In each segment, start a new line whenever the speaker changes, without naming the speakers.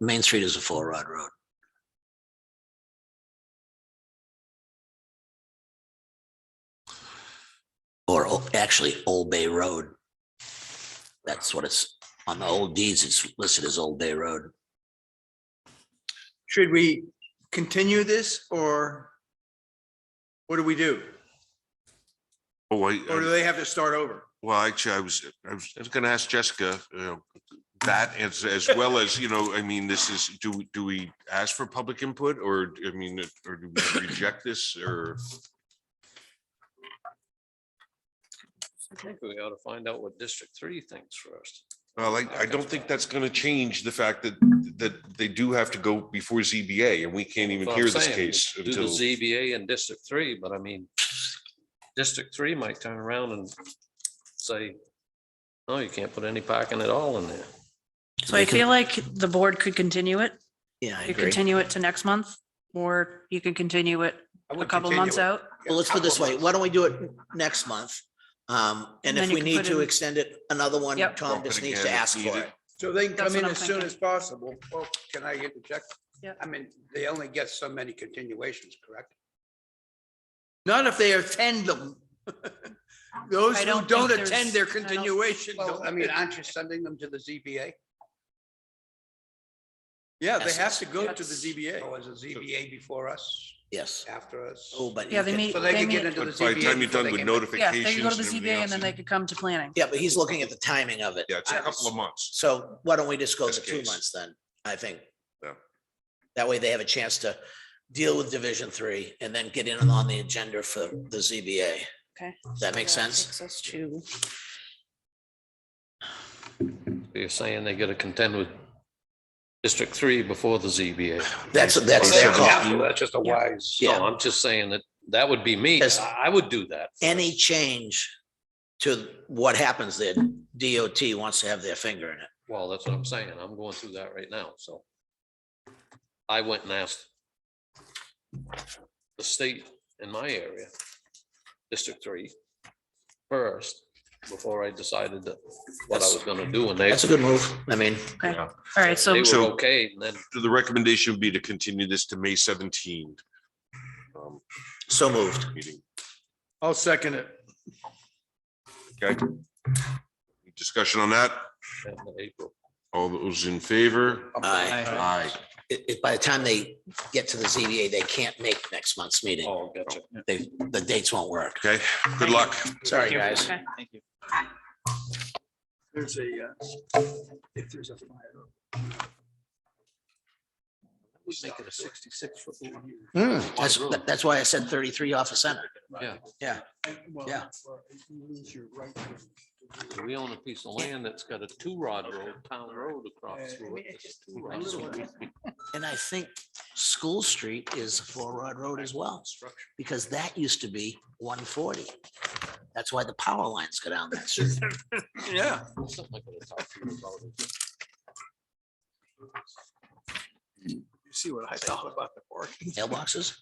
Main Street is a four rod road. Or o- actually Old Bay Road. That's what it's, on the old deeds, it's listed as Old Bay Road.
Should we continue this or what do we do?
Oh, I,
Or do
I-
they have to start over?
well, actually, I was, I was, I was gonna ask Jessica, you know, that as, as well as, you know, I mean, this is, do, we do we ask for public input or, I mean, or do we reject this or?
I think we ought to find out what District Three thinks first.
Well, I, I don't think that's gonna change the fact that, that they do have to go before ZBA and we can't even
That's what
hear
I'm
this
saying,
case
do
until.
the ZBA in District Three, but I mean, District Three might turn around and say, no, you can't put any parking at all in there.
So I feel like the board could continue it.
Yeah, I
You
agree.
continue it to next month, or you can continue it
I
a
would
couple
continue
months
it.
out.
Yeah,
Well, let's put it
couple
this way,
months.
why don't we do it next month? Um, and
And
if
then you
we
can
need
put
to
in-
extend it another one,
Yep.
Tom
Bump it
just needs to
again if
ask for
needed.
it.
So they can
That's
come in
what I'm
as soon
thinking.
as possible. Well, can I get the check?
Yeah.
I mean, they only get so many continuations, correct? Not if they attend them. Those
I
who
don't
don't
think
attend
there's-
their
I don't-
continuation.
Well,
don't
I mean,
get-
aren't you sending them to the ZBA?
Yeah, they
Yes,
have to go to the
that's-
Or
ZBA.
is the ZBA before us,
Yes.
after us?
Oh, but.
Yeah,
you
they
can-
meet,
So they
they
could get
meet,
into the
But by the
ZBA.
time you're
before
done
they
with
came back.
yeah,
notifications.
they could go to the
and everything
ZBA and
else,
then they could come to planning.
Yeah, but he's looking at the timing of it.
Yeah, it's a
I
couple
was-
of months.
So why don't we just go
This
to two
case.
months then, I think?
Yeah.
That way they have a chance to deal with Division Three and then get in on the agenda for the ZBA.
Okay.
Does that make sense?
Takes us to-
You're saying they gotta contend with District Three before the ZBA.
That's, that's their call.
Yeah, That's just a wise.
No,
Yeah.
I'm just saying that that would be me.
Yes.
I I would do that.
Any change to what happens there, DOT wants to have their finger in it.
Well, that's what I'm saying. I'm going through that right now, so. I went and asked the state in my area, District Three, first, before I decided that what I was gonna do, and they,
That's a good move. I mean,
All right, so
they were
So-
okay, and then
The recommendation would be to continue this to May seventeenth. um,
so moved.
meeting.
I'll second it.
Discussion on that?
in April.
All those in favor?
Aye.
Aye.
It- it- by the time they get to the ZBA, they can't make next month's meeting.
Oh, gotcha.
They, the dates won't work.
Okay, good luck.
Sorry, guys.
There's a, uh, if there's a fire.
We make it a sixty-six foot. long.
Hmm.
That's, that- that's why I said thirty-three off of center. Yeah.
We own a piece of land that's got a two rod road, town road across through it. It's a two rod road.
And I think School Street is a four-rod road as well, because that used to be one forty. That's why the power lines go down that street.
Yeah.
Something like that. I'll talk to you about it.
You see what I thought about the parking?
Mailboxes?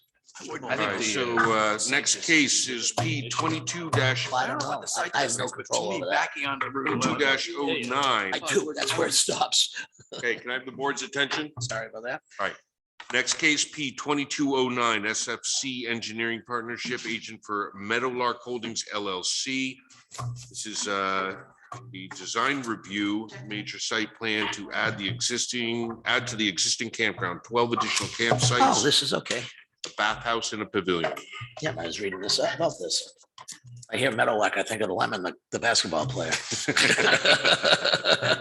All right, so uh, next case is P twenty-two dash,
I don't know. I- I have no control over that.
Backing onto Route
twenty-two
11.
dash oh nine.
I do, that's where it stops.
Okay, can I have the board's attention?
Sorry about that.
Next case, P twenty-two oh nine, SFC Engineering Partnership Agent for Meadowlark Holdings LLC. This is uh, the design review, major site plan to add the existing, add to the existing campground, twelve additional
Oh,
campsites,
this is okay.
a bathhouse and a pavilion.
Yeah, I was reading this up about this. I hear Meadowlark, I think of Lemon, the- the basketball player.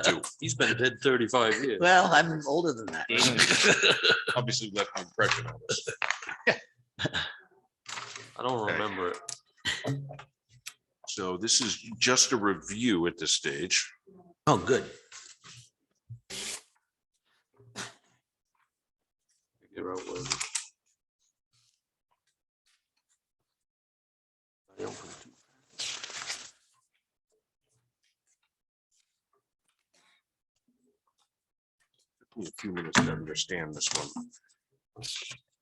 Two.
He's been dead thirty-five years.
Well, I'm older than that.
Obviously left an impression on us.
I don't
Okay.
remember it.
So this is just a review at this stage.
Oh, good.
Figure out where. I opened it.
Took me A few minutes to understand this one.